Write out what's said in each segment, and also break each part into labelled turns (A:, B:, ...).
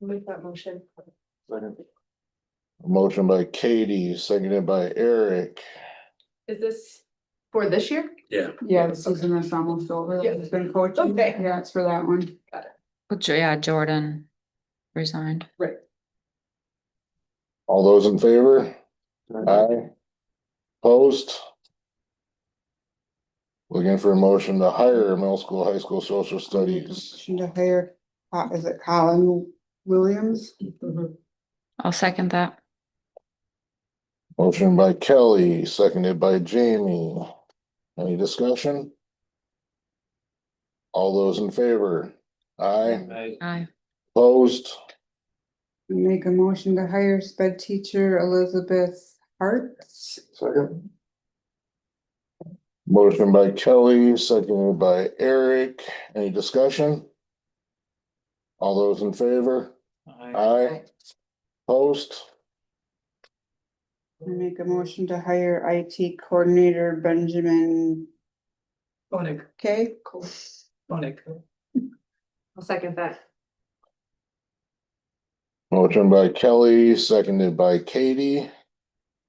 A: Make that motion.
B: Motion by Katie, seconded by Eric.
A: Is this for this year?
C: Yeah.
D: Yeah, the season is almost over,
A: Yeah.
D: it's been coaching,
A: Okay.
D: yeah, it's for that one.
E: Well, Jo- yeah, Jordan resigned.
B: All those in favor? Aye. Post. Looking for a motion to hire middle school, high school social studies.
D: Motion to hire, uh, is it Colin Williams?
E: I'll second that.
B: Motion by Kelly, seconded by Jamie. Any discussion? All those in favor? Aye.
E: Aye.
B: Post.
D: Make a motion to hire sped teacher Elizabeth Hartz.
B: Second. Motion by Kelly, seconded by Eric. Any discussion? All those in favor? Aye. Post.
D: I Make a motion to hire IT coordinator Benjamin
F: Bonic,
D: Kay.
F: Bonic,
A: I'll second that.
B: Motion by Kelly, seconded by Katie.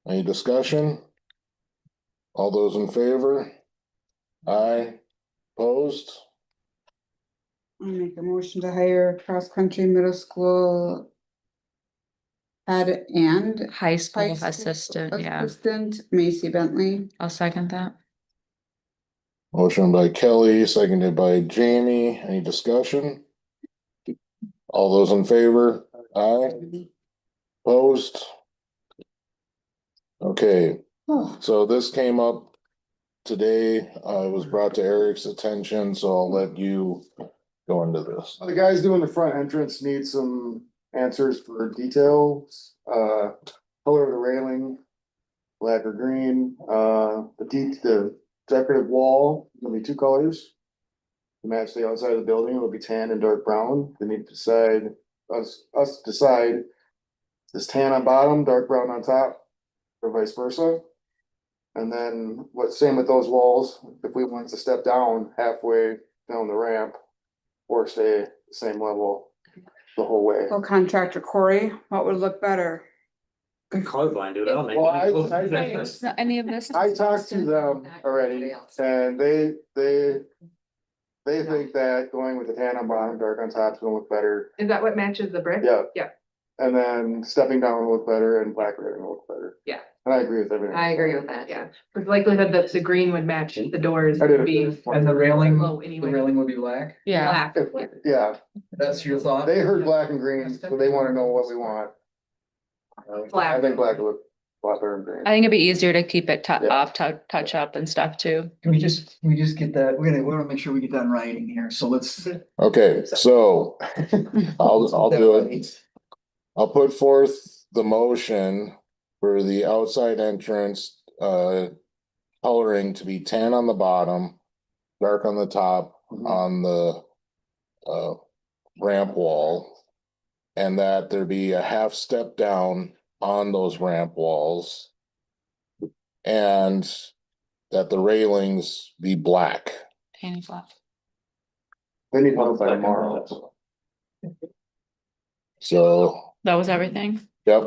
B: Any discussion? All those in favor? Aye. Post.
D: I make a motion to hire cross-country middle school head and
E: High
D: high
E: school
D: school
E: assistant, yeah,
D: assistant Macy Bentley.
E: I'll second that.
B: Motion by Kelly, seconded by Jamie. Any discussion? All those in favor? Aye. Post. Okay,
D: Oh,
B: so this came up today. Uh, it was brought to Eric's attention, so I'll let you go into this.
G: The guys doing the front entrance need some answers for details, uh, color of the railing. Black or green, uh, the deep, the decorative wall, gonna be two colors. To Match the outside of the building, it'll be tan and dark brown, they need to decide, us, us decide. Is tan on bottom, dark brown on top, or vice versa? And then what, same with those walls, if we want to step down halfway down the ramp or stay at the same level the whole way.
D: Well, contractor Corey, what would look better?
C: Colorblind, dude, I don't think.
G: Well, I- I-
E: It's not any of this.
G: I talked to them already and they, they, they think that going with the tan on bottom, dark on top is gonna look better.
A: Is that what matches the brick?
G: Yeah.
A: Yeah.
G: And then stepping down will look better and black railing will look better.
A: Yeah.
G: And I agree with everything.
A: I agree with that, yeah. With likelihood that the green would match the doors
G: I did it.
A: being
F: and the railing,
A: low
F: the
A: anyway.
F: railing would be black,
E: Yeah,
A: Black.
G: If- Yeah,
F: that's your thought?
G: they heard black and green, so they wanna know what we want. I
A: Black.
G: think black will look a lot better than green.
E: I think it'd be easier to keep it tou-
G: Yeah.
E: off, tou- touch up and stuff too.
F: Can we just, can we just get that, we're gonna, we wanna make sure we get that in writing here, so let's.
B: Okay, so I'll, I'll do it. I'll put forth the motion for the outside entrance, uh, coloring to be tan on the bottom, dark on the top,
G: Mhm.
B: on the, uh, ramp wall. And that there be a half step down on those ramp walls. And that the railings be black.
E: Tanny flap.
G: They need one by tomorrow.
B: So,
E: That was everything?
B: yep,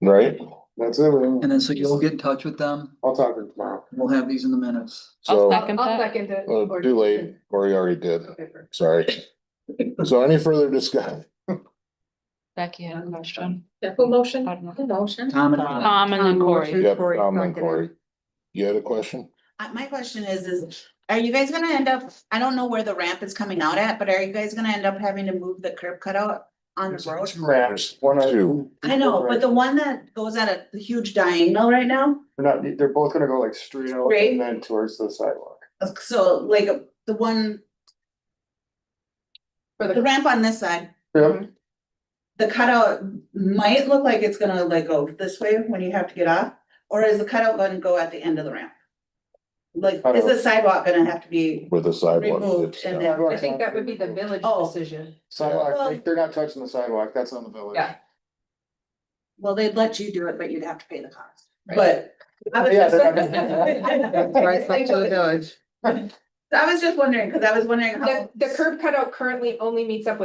B: right?
G: That's everything.
F: And then, so you'll get in touch with them,
G: I'll talk to them tomorrow.
F: we'll have these in the minutes.
B: So,
E: I'll second
A: I'll
E: that.
A: second it.
B: uh, too late, or you already did.
A: Okay, perfect.
B: Sorry. So any further discussion?
E: Becky had a question.
A: Who motion?
E: I don't know.
A: motion?
F: Tom and. Ellen.
E: Tom and then Corey.
B: Yep,
D: Corey,
B: Tom and
D: second.
B: Corey. You had a question?
H: Uh, my question is, is are you guys gonna end up, I don't know where the ramp is coming out at, but are you guys gonna end up having to move the curb cutout on the road?
G: Two ramps, one on.
B: Two.
H: I know, but the one that goes at a huge diagonal right now,
G: They're not, they're both gonna go like straight out
H: Straight.
G: and then towards the sidewalk.
H: uh, so like uh, the one,
A: For
H: the
A: the,
H: ramp on this side.
A: Mm-hmm.
G: Yeah.
H: The cutout might look like it's gonna like go this way when you have to get off, or is the cutout gonna go at the end of the ramp? Like,
G: I
H: is
G: don't-
H: the sidewalk gonna have to be,
B: With the sidewalk.
H: Removed
B: it's
H: and
B: down.
H: then-
A: I think that would be the village
H: Oh.
A: decision.
G: Sidewalk,
H: Well-
G: they- they're not touching the sidewalk, that's on the village.
A: Yeah.
H: well, they'd let you do it, but you'd have to pay the cost,
G: Right.
H: but. I was
G: Yeah,
H: just-
G: they're
D: Right, it's up to the village.
H: I was just wondering, because I was wondering how.
A: The, the curb cutout currently only meets up with